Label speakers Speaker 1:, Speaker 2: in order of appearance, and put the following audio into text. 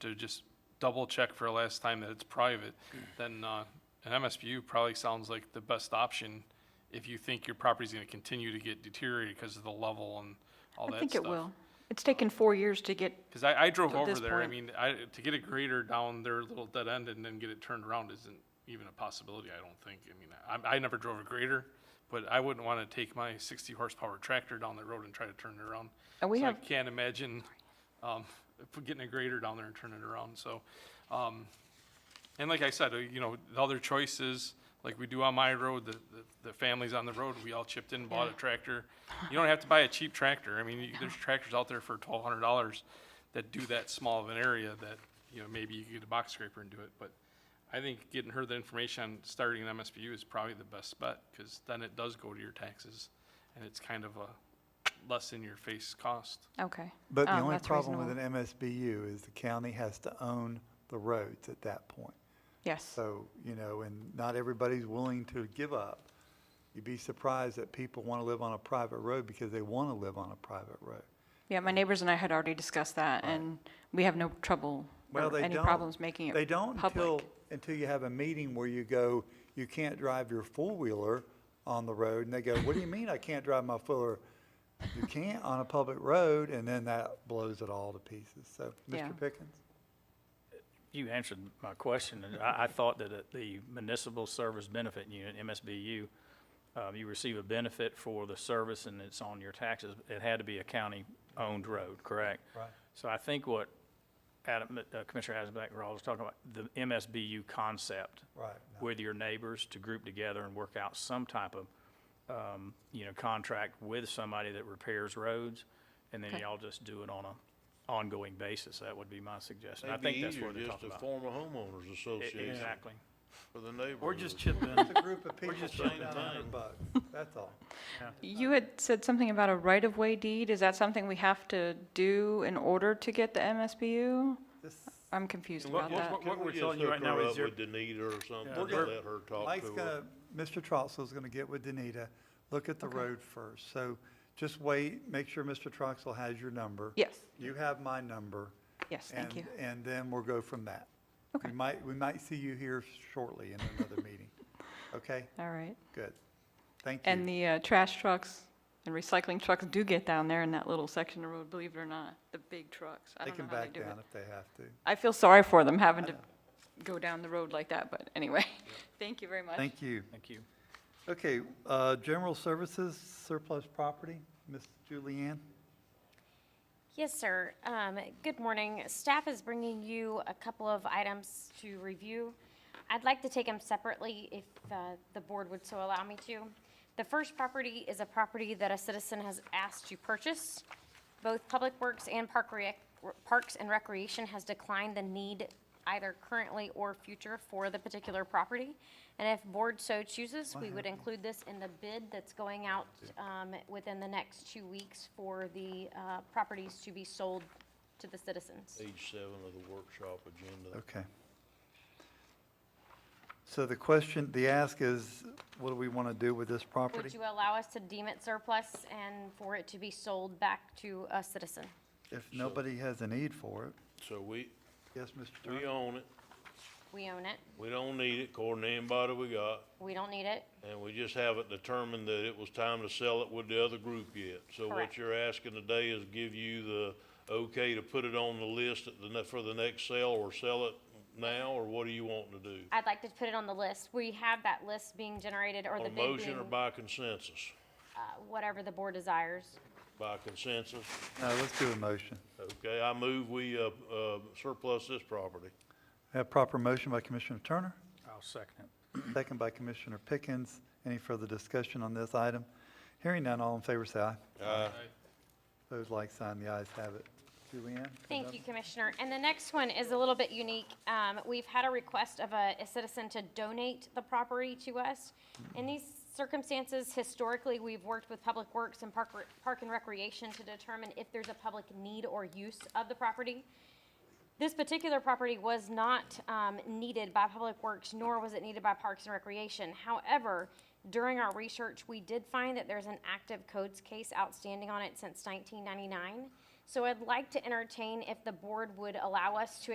Speaker 1: to just double check for a last time that it's private, then, uh, an MSBU probably sounds like the best option if you think your property's gonna continue to get deteriorated because of the level and all that stuff.
Speaker 2: I think it will. It's taken four years to get,
Speaker 1: Because I, I drove
Speaker 2: At
Speaker 1: over
Speaker 2: this
Speaker 1: there, I
Speaker 2: point.
Speaker 1: mean, I, to get a grader down their little dead end and then get it turned around isn't even a possibility, I don't think. I mean, I, I never drove a grader, but I wouldn't want to take my sixty horsepower tractor down the road and try to turn it around.
Speaker 2: And we
Speaker 1: So I
Speaker 2: have-
Speaker 1: can't imagine, um, if getting a grader down there and turning it around, so, um, and like I said, uh, you know, the other choices, like we do on my road, the, the, the families on the road, we all chipped in, bought a tractor. You don't have to buy a cheap tractor. I mean, you- there's tractors out there for twelve hundred dollars that do that small of an area that, you know, maybe you could get a box scraper and do it, but I think getting her the information on starting an MSBU is probably the best bet, cause then it does go to your taxes, and it's kind of a less in your face cost.
Speaker 2: okay.
Speaker 3: But the
Speaker 2: Um,
Speaker 3: only
Speaker 2: that's
Speaker 3: problem with an
Speaker 2: reasonable.
Speaker 3: MSBU is the county has to own the roads at that point.
Speaker 2: Yes,
Speaker 3: So, you know, and not everybody's willing to give up. You'd be surprised that people want to live on a private road because they want to live on a private road.
Speaker 2: yeah, my neighbors and I had already discussed that, and we have no trouble
Speaker 3: Well,
Speaker 2: or
Speaker 3: they
Speaker 2: any
Speaker 3: don't.
Speaker 2: problems making it
Speaker 3: They don't until,
Speaker 2: public.
Speaker 3: until you have a meeting where you go, you can't drive your four-wheeler on the road. And they go, what do you mean I can't drive my four-wheeler? You can't on a public road, and then that blows it all to pieces. So,
Speaker 2: Yeah.
Speaker 3: Mr. Pickens?
Speaker 4: You answered my question. and I, I thought that at the Municipal Service Benefit Unit, MSBU, um, you receive a benefit for the service and it's on your taxes. It had to be a county-owned road, correct?
Speaker 3: Right.
Speaker 4: So I think what Adam, uh, Commissioner Hasenbeck, Rawls was talking about, the MSBU concept
Speaker 3: Right. no.
Speaker 4: with your neighbors to group together and work out some type of, um, you know, contract with somebody that repairs roads, and then
Speaker 2: Okay.
Speaker 4: y'all just do it on a ongoing basis. That would be my suggestion. I
Speaker 5: It'd be
Speaker 4: think that's
Speaker 5: easier
Speaker 4: what they're
Speaker 5: just to
Speaker 4: talking about.
Speaker 5: form a homeowners
Speaker 4: E-
Speaker 5: association
Speaker 4: Exactly.
Speaker 5: for the neighborhood.
Speaker 6: Or just chip in.
Speaker 3: It's a group of people
Speaker 5: just
Speaker 3: putting
Speaker 5: saying
Speaker 3: down a hundred
Speaker 5: thing.
Speaker 3: bucks, that's all.
Speaker 2: You had said something about a right-of-way deed. Is that something we have to do in order to get the MSBU?
Speaker 3: This-
Speaker 2: I'm confused
Speaker 4: what-
Speaker 2: about
Speaker 4: what-
Speaker 2: that.
Speaker 4: what-
Speaker 5: Can
Speaker 4: we're
Speaker 5: we just
Speaker 4: telling you
Speaker 5: hook
Speaker 4: right now
Speaker 5: her
Speaker 4: is
Speaker 5: up
Speaker 4: your-
Speaker 5: With Danita or something,
Speaker 3: We're
Speaker 5: and
Speaker 3: gonna-
Speaker 5: let her talk
Speaker 3: Mike's
Speaker 5: to her.
Speaker 3: gonna, Mr. Troxel's gonna get with Danita, look at the road first. So just wait, make sure Mr. Troxel has your number.
Speaker 2: Yes,
Speaker 3: You have my number.
Speaker 2: yes, thank you.
Speaker 3: and- And then we'll go from that.
Speaker 2: Okay.
Speaker 3: We might, we might see you here shortly in another meeting. Okay,
Speaker 2: All right.
Speaker 3: good. Thank you.
Speaker 2: And the uh, trash trucks and recycling trucks do get down there in that little section of road, believe it or not, the big trucks. I
Speaker 3: They
Speaker 2: don't know
Speaker 3: can
Speaker 2: how they
Speaker 3: back
Speaker 2: do it.
Speaker 3: down if they have to.
Speaker 2: I feel sorry for them having to go down the road like that, but anyway, thank you very much.
Speaker 3: Thank you.
Speaker 4: Thank you.
Speaker 3: Okay, uh, general services, surplus property, Ms. Julianne?
Speaker 7: Yes, sir. Um, Good morning. Staff is bringing you a couple of items to review. I'd like to take them separately if uh, the board would so allow me to. The first property is a property that a citizen has asked to purchase. Both Public Works and Park Rec- Parks and Recreation has declined the need either currently or future for the particular property. And if board so chooses, we would include this in the bid that's going out um, within the next two weeks for the uh, properties to be sold to the citizens.
Speaker 5: Page seven of the workshop agenda.
Speaker 3: Okay. So the question, the ask is, what do we want to do with this property?
Speaker 7: Would you allow us to deem it surplus and for it to be sold back to a citizen?
Speaker 3: If nobody has a need for it,
Speaker 5: So we,
Speaker 3: yes, Mr.
Speaker 5: we
Speaker 3: Turner?
Speaker 5: own it,
Speaker 7: We own it.
Speaker 5: we don't need it according to anybody we got,
Speaker 7: We don't need it.
Speaker 5: and we just haven't determined that it was time to sell it with the other group yet. So what
Speaker 7: Correct.
Speaker 5: you're asking today is give you the okay to put it on the list at the, ne- for the next sale or sell it now, or what are you wanting to do?
Speaker 7: I'd like to put it on the list. We have that list being generated or the
Speaker 5: On a
Speaker 7: bid
Speaker 5: motion or
Speaker 7: being,
Speaker 5: by consensus?
Speaker 7: uh, whatever the board desires.
Speaker 5: By consensus?
Speaker 3: No, let's do a motion.
Speaker 5: Okay, I move we uh, uh, surplus this property.
Speaker 3: Have proper motion by Commissioner Turner,
Speaker 4: I'll second it.
Speaker 3: second by Commissioner Pickens. Any further discussion on this item? Hearing none, all in favor, say aye. Those like sign, the ayes have it. Julianne?
Speaker 7: Thank you, Commissioner. And the next one is a little bit unique. Um, We've had a request of a a citizen to donate the property to us. In these circumstances, historically, we've worked with Public Works and Park Re- Park and Recreation to determine if there's a public need or use of the property. This particular property was not um, needed by Public Works, nor was it needed by Parks and Recreation. However, during our research, we did find that there's an active codes case outstanding on it since 1999. So I'd like to entertain if the board would allow us to